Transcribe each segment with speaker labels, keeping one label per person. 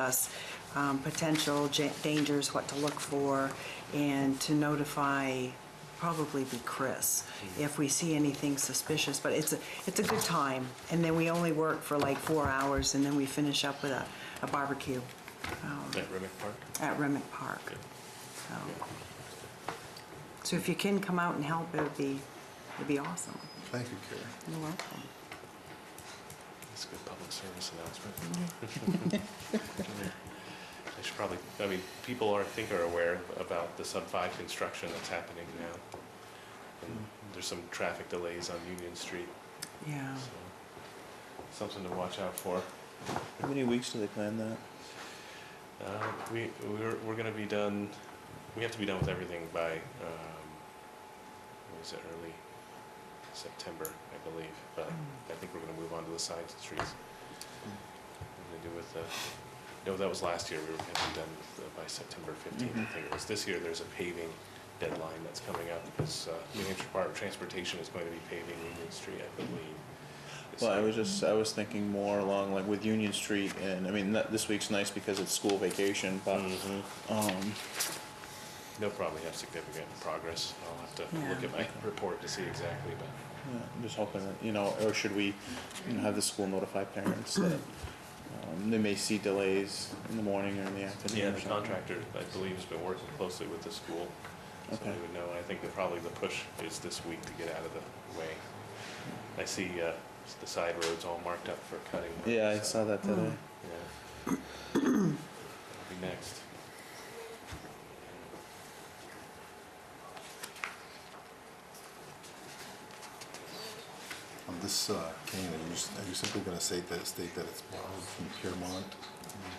Speaker 1: us um, potential ja- dangers, what to look for, and to notify, probably be Chris,
Speaker 2: Mm-hmm.
Speaker 1: if we see anything suspicious. But it's a, it's a good time, and then we only work for like four hours, and then we finish up with a a barbecue um,
Speaker 2: At Remick Park?
Speaker 1: at Remick Park. So so if you can come out and help, it would be, it'd be awesome.
Speaker 3: Thank you, Carrie.
Speaker 1: You're welcome.
Speaker 2: That's a good public service announcement. I should probably, I mean, people are, I think are aware about the sub five construction that's happening now. And there's some traffic delays on Union Street,
Speaker 1: Yeah.
Speaker 2: so something to watch out for.
Speaker 4: How many weeks do they plan that?
Speaker 2: Uh, we, we're, we're gonna be done, we have to be done with everything by, um, what was it, early September, I believe, but
Speaker 4: Mm.
Speaker 2: I think we're gonna move on to the side streets. What they do with the, no, that was last year, we were gonna be done with, uh, by September fifteenth, I
Speaker 4: Mhm.
Speaker 2: think it was. This year, there's a paving deadline that's coming up, because, uh, New Hampshire Department of Transportation is going to be paving Union Street, I believe. this
Speaker 4: Well, I
Speaker 2: year.
Speaker 4: was just, I was thinking more along like with Union Street and, I mean, that- this week's nice because it's school vacation, but,
Speaker 2: Mhm.
Speaker 4: um,
Speaker 2: They'll probably have significant progress. I'll have to
Speaker 1: Yeah.
Speaker 2: look at my report to see exactly, but.
Speaker 4: yeah, I'm just hoping that, you know, or should we, you know, have the school notify parents that, um, they may see delays in the morning or in the afternoon
Speaker 2: Yeah,
Speaker 4: or
Speaker 2: the
Speaker 4: something?
Speaker 2: contractor, I believe, has been working closely with the school, so they
Speaker 4: Okay.
Speaker 2: would know. I think that probably the push is this week to get out of the way. I see uh, the side roads all marked up for cutting. work,
Speaker 4: Yeah, I
Speaker 2: so,
Speaker 4: saw that today.
Speaker 2: yeah. That'll be next.
Speaker 3: On this uh, cane, are you s- are you simply going to state that, state that it's borrowed from Piermont?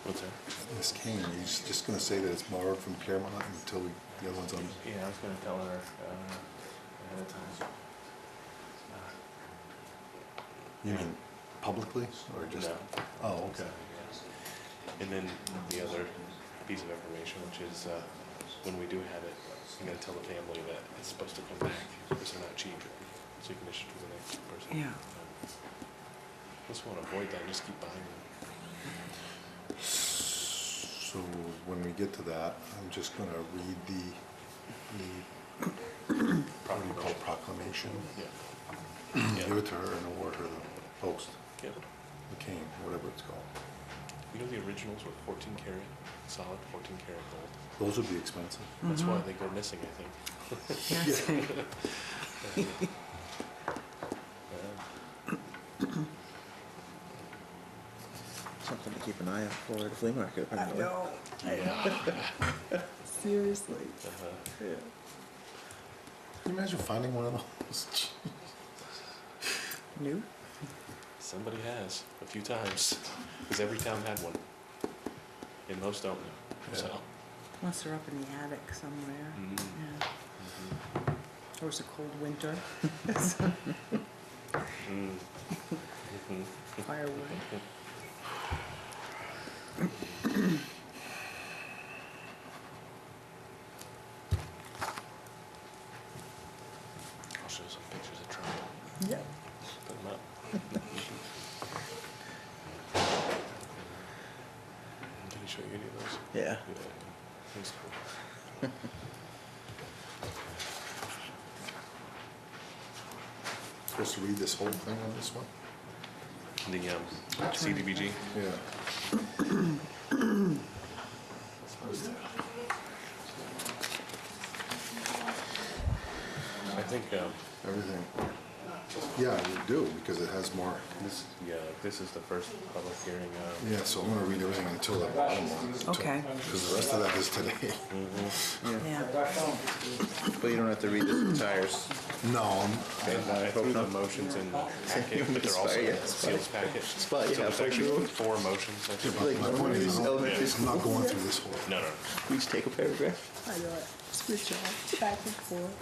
Speaker 2: What's that?
Speaker 3: This cane, are you s- just going to say that it's borrowed from Piermont until we, the other one's on?
Speaker 2: Yeah, I was gonna tell her uh, ahead of time.
Speaker 3: You mean publicly or just?
Speaker 2: No.
Speaker 3: Oh, okay.
Speaker 2: And then the other piece of information, which is, uh, when we do have it, I'm gonna tell the family that it's supposed to come back, because they're not cheap, so you can issue to the next person. Um,
Speaker 1: Yeah.
Speaker 2: Just wanna avoid that, just keep buying them.
Speaker 3: So when we get to that, I'm just going to read the, the, what do you call it, proclamation?
Speaker 2: Yeah.
Speaker 3: Give
Speaker 2: Yeah,
Speaker 3: it to her and award her the post,
Speaker 2: yeah.
Speaker 3: the cane, whatever it's called.
Speaker 2: You know, the originals were fourteen karat, solid fourteen karat gold.
Speaker 3: Those would be expensive.
Speaker 2: That's
Speaker 1: Mm-hmm.
Speaker 2: why they go missing, I think.
Speaker 1: Yes.
Speaker 4: Something to keep an eye out for at the flea market,
Speaker 1: I
Speaker 4: apparently.
Speaker 1: know,
Speaker 2: Yeah.
Speaker 1: seriously.
Speaker 2: Uh-huh.
Speaker 4: Yeah.
Speaker 3: Can you imagine finding one of those?
Speaker 1: New?
Speaker 2: Somebody has, a few times, because every town had one. And most don't, so.
Speaker 1: Unless they're up in the attic somewhere.
Speaker 2: Mm.
Speaker 1: Yeah.
Speaker 2: Mm-hmm.
Speaker 1: Or it's a cold winter,
Speaker 2: Mm. Mhm.
Speaker 1: firewood.
Speaker 2: I'll show some pictures of Trump,
Speaker 1: Yeah.
Speaker 2: put them up. Did he show you any of those?
Speaker 4: Yeah.
Speaker 2: Yeah, yeah. That's cool.
Speaker 3: Supposed to read this whole thing on this one?
Speaker 2: The um, CDBG?
Speaker 3: Yeah.
Speaker 2: I think, um,
Speaker 3: Everything. Yeah, you do, because it has more. This-
Speaker 2: yeah, this is the first public hearing. um,
Speaker 3: Yeah, so I'm gonna read everything until the bottom one.
Speaker 1: Okay,
Speaker 3: Because the rest of that is today.
Speaker 1: yeah.
Speaker 4: But you don't have to read the entires.
Speaker 3: No, I'm-
Speaker 2: And I threw the motions in the packet, but they're also in the seals packet. So
Speaker 4: Spot, yeah,
Speaker 2: there's actually
Speaker 4: sure.
Speaker 2: four motions. I think.
Speaker 4: Like,
Speaker 3: my point is, I'm not-
Speaker 4: elementary
Speaker 3: I'm not going through this whole.
Speaker 2: No, no, no.
Speaker 4: We just take a paragraph.
Speaker 1: I know it. Switch off, back and forth.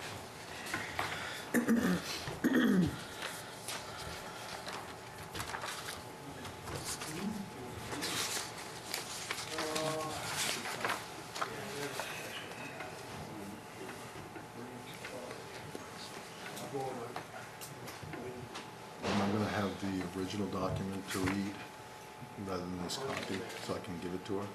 Speaker 3: Am I gonna have the original document to read rather than this copy, so I can give it to her?